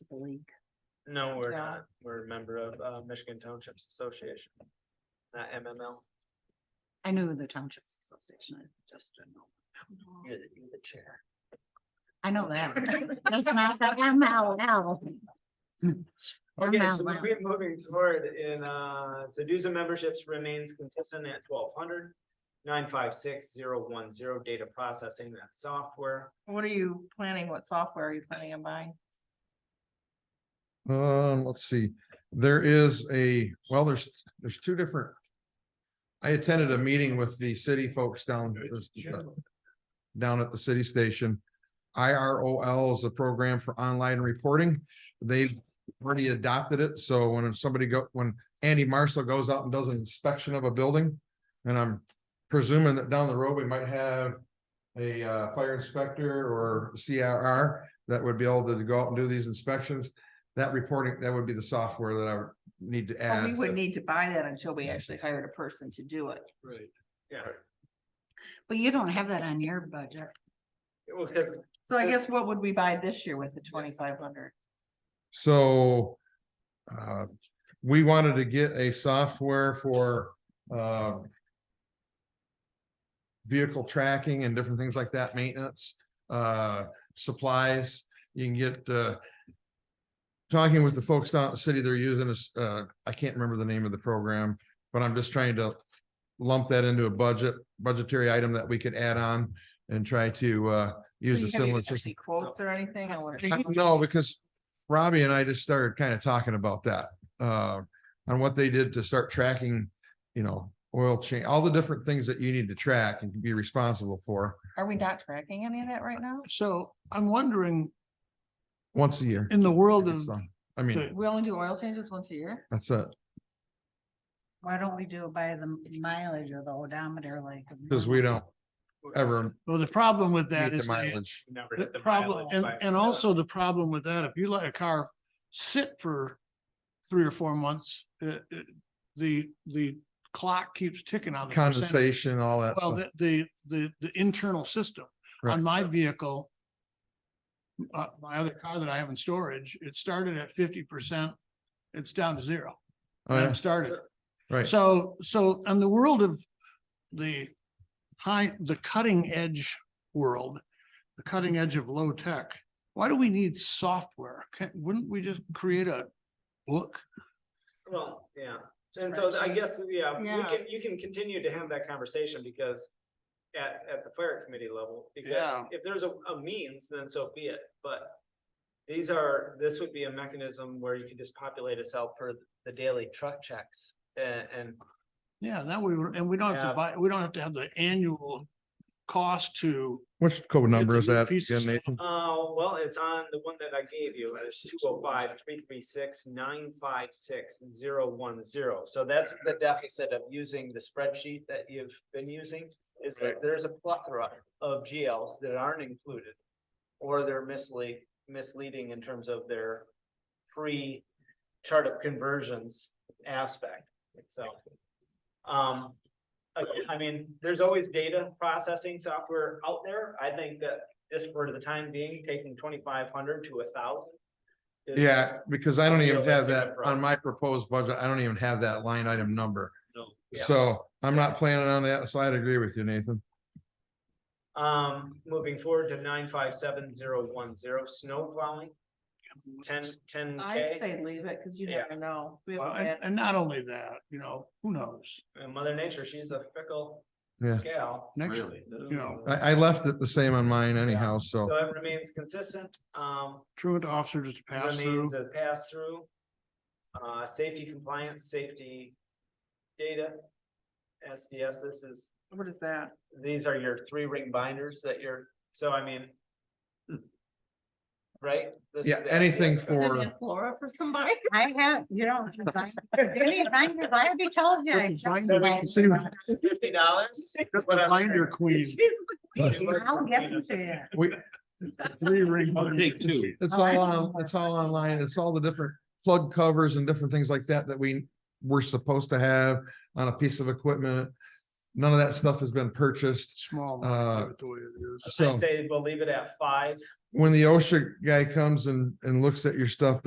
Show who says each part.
Speaker 1: It's a link.
Speaker 2: No, we're
Speaker 1: No.
Speaker 2: not. We're a member of uh Michigan Townships Association. Not MML.
Speaker 1: I knew the Township Association, I just didn't know.
Speaker 2: You're the, you're the chair.
Speaker 1: I know that. That's not the MLL.
Speaker 2: Okay, so
Speaker 1: MLL.
Speaker 2: we're moving forward in uh, so dues and memberships remains consistent at twelve hundred. Nine five six zero one zero data processing, that's software.
Speaker 3: What are you planning? What software are you planning on buying?
Speaker 4: Um, let's see, there is a, well, there's, there's two different. I attended a meeting with the city folks down, down at the city station. IROL is a program for online reporting. They've already adopted it, so when somebody go, when Andy Marshall goes out and does an inspection of a building. And I'm presuming that down the road, we might have a uh, fire inspector or CRR that would be able to go out and do these inspections. That reporting, that would be the software that I would need to
Speaker 3: Well,
Speaker 4: add.
Speaker 3: Oh, We would need to buy that until we actually hired a person to do it.
Speaker 2: Right. Yeah,
Speaker 1: But you don't have that on your budget.
Speaker 2: well, because
Speaker 3: So I guess what would we buy this year with the twenty-five hundred?
Speaker 4: So uh, we wanted to get a software for um, vehicle tracking and different things like that, maintenance, uh, supplies. You can get uh, talking with the folks down at the city, they're using this, uh, I can't remember the name of the program, but I'm just trying to lump that into a budget, budgetary item that we could add on and try to uh, use a similar system.
Speaker 3: Quotes or anything? I wonder.
Speaker 4: Uh, No, because Robbie and I just started kind of talking about that, uh, on what they did to start tracking, you know, oil change, all the different things that you need to track and be responsible for
Speaker 3: Are we not tracking any of that right now?
Speaker 5: So I'm wondering,
Speaker 4: once a year.
Speaker 5: in the world of,
Speaker 4: So, I mean,
Speaker 5: the-
Speaker 3: We only do oil changes once a year?
Speaker 4: that's it,
Speaker 1: Why don't we do it by the mileage or the odometer like?
Speaker 4: because we don't ever
Speaker 5: well, the problem with
Speaker 4: meet
Speaker 5: that
Speaker 4: the
Speaker 5: is the
Speaker 4: mileage.
Speaker 2: never
Speaker 5: the
Speaker 2: hit the
Speaker 5: problem,
Speaker 2: mileage
Speaker 5: and,
Speaker 2: by-
Speaker 5: and also the problem with that, if you let a car sit for three or four months, uh, uh, the, the clock keeps ticking on. the percentage.
Speaker 4: Condensation, all that.
Speaker 5: Well,
Speaker 4: stuff.
Speaker 5: the, the, the, the internal system
Speaker 4: Right.
Speaker 5: on my vehicle. Uh, my other car that I have in storage, it started at fifty percent. It's down to zero.
Speaker 4: Oh,
Speaker 5: when
Speaker 4: yeah,
Speaker 5: it started.
Speaker 4: Right.
Speaker 5: So, so in the world of the high, the cutting edge world, the cutting edge of low tech, why do we need software? Can, wouldn't we just create a book?
Speaker 2: Well, yeah, and so I
Speaker 3: Spreadsheet.
Speaker 2: guess, yeah, we
Speaker 3: Yeah.
Speaker 2: can, you can continue to have that conversation because at, at the fire committee level, because
Speaker 5: Yeah.
Speaker 2: if there's a, a means, then so be it, but these are, this would be a mechanism where you could just populate us out per the daily truck checks and, and
Speaker 5: Yeah, that we would, and we don't have
Speaker 2: Yeah.
Speaker 5: to buy, we don't have to have the annual cost to.
Speaker 4: Which code number
Speaker 5: get
Speaker 4: is
Speaker 5: the new
Speaker 4: that?
Speaker 5: piece of
Speaker 4: again, Nathan?
Speaker 2: Uh, well, it's on the one that I gave you, it's two oh five, three three six, nine five six, zero one zero. So that's the deficit of using the spreadsheet that you've been using, is that there's a plethora of GLs that aren't included. Or they're mislead, misleading in terms of their free chart of conversions aspect, so. Um, I, I mean, there's always data processing software out there. I think that just for the time being, taking twenty-five hundred to a thousand.
Speaker 4: Yeah, because I don't even have
Speaker 2: Realistic
Speaker 4: that
Speaker 2: approach.
Speaker 4: on my proposed budget. I don't even have that line item number.
Speaker 2: Yeah.
Speaker 4: So I'm not planning on that. So I'd agree with you, Nathan.
Speaker 2: Um, moving forward to nine five seven zero one zero, snow plowing, ten, ten
Speaker 3: I
Speaker 2: K.
Speaker 3: say leave it because you
Speaker 2: Yeah.
Speaker 3: never know. We
Speaker 5: Well,
Speaker 3: haven't
Speaker 5: And,
Speaker 3: had-
Speaker 5: and not only that, you know, who knows?
Speaker 2: And Mother Nature, she's a fickle
Speaker 4: Yeah.
Speaker 2: gal.
Speaker 5: Next, you know,
Speaker 4: I, I left it the same on mine anyhow, so.
Speaker 2: So it remains consistent, um,
Speaker 5: truant officers to pass through.
Speaker 2: remains a pass through. Uh, safety compliance, safety data, SDS, this is
Speaker 3: What is that?
Speaker 2: these are your three ring binders that you're, so I mean. Right? This is
Speaker 4: Yeah,
Speaker 2: the
Speaker 4: anything
Speaker 2: SDS stuff.
Speaker 3: Did
Speaker 4: for,
Speaker 3: ask Laura for somebody?
Speaker 1: I have, you don't. Any binders, I already told you. I got
Speaker 2: So we can
Speaker 1: some
Speaker 5: see-
Speaker 1: binders.
Speaker 2: Fifty dollars?
Speaker 5: Binder queen,
Speaker 1: She's the queen. I'll give them to you.
Speaker 4: we,
Speaker 5: three ring.
Speaker 4: it's all on, it's all online. It's all the different plug covers and different things like that that we were supposed to have on a piece of equipment. None of that stuff has been purchased.
Speaker 5: small.
Speaker 4: Uh,
Speaker 5: The way it is.
Speaker 4: So
Speaker 2: I'd say we'll leave it at five.
Speaker 4: when the OSHA guy comes and, and looks at your stuff,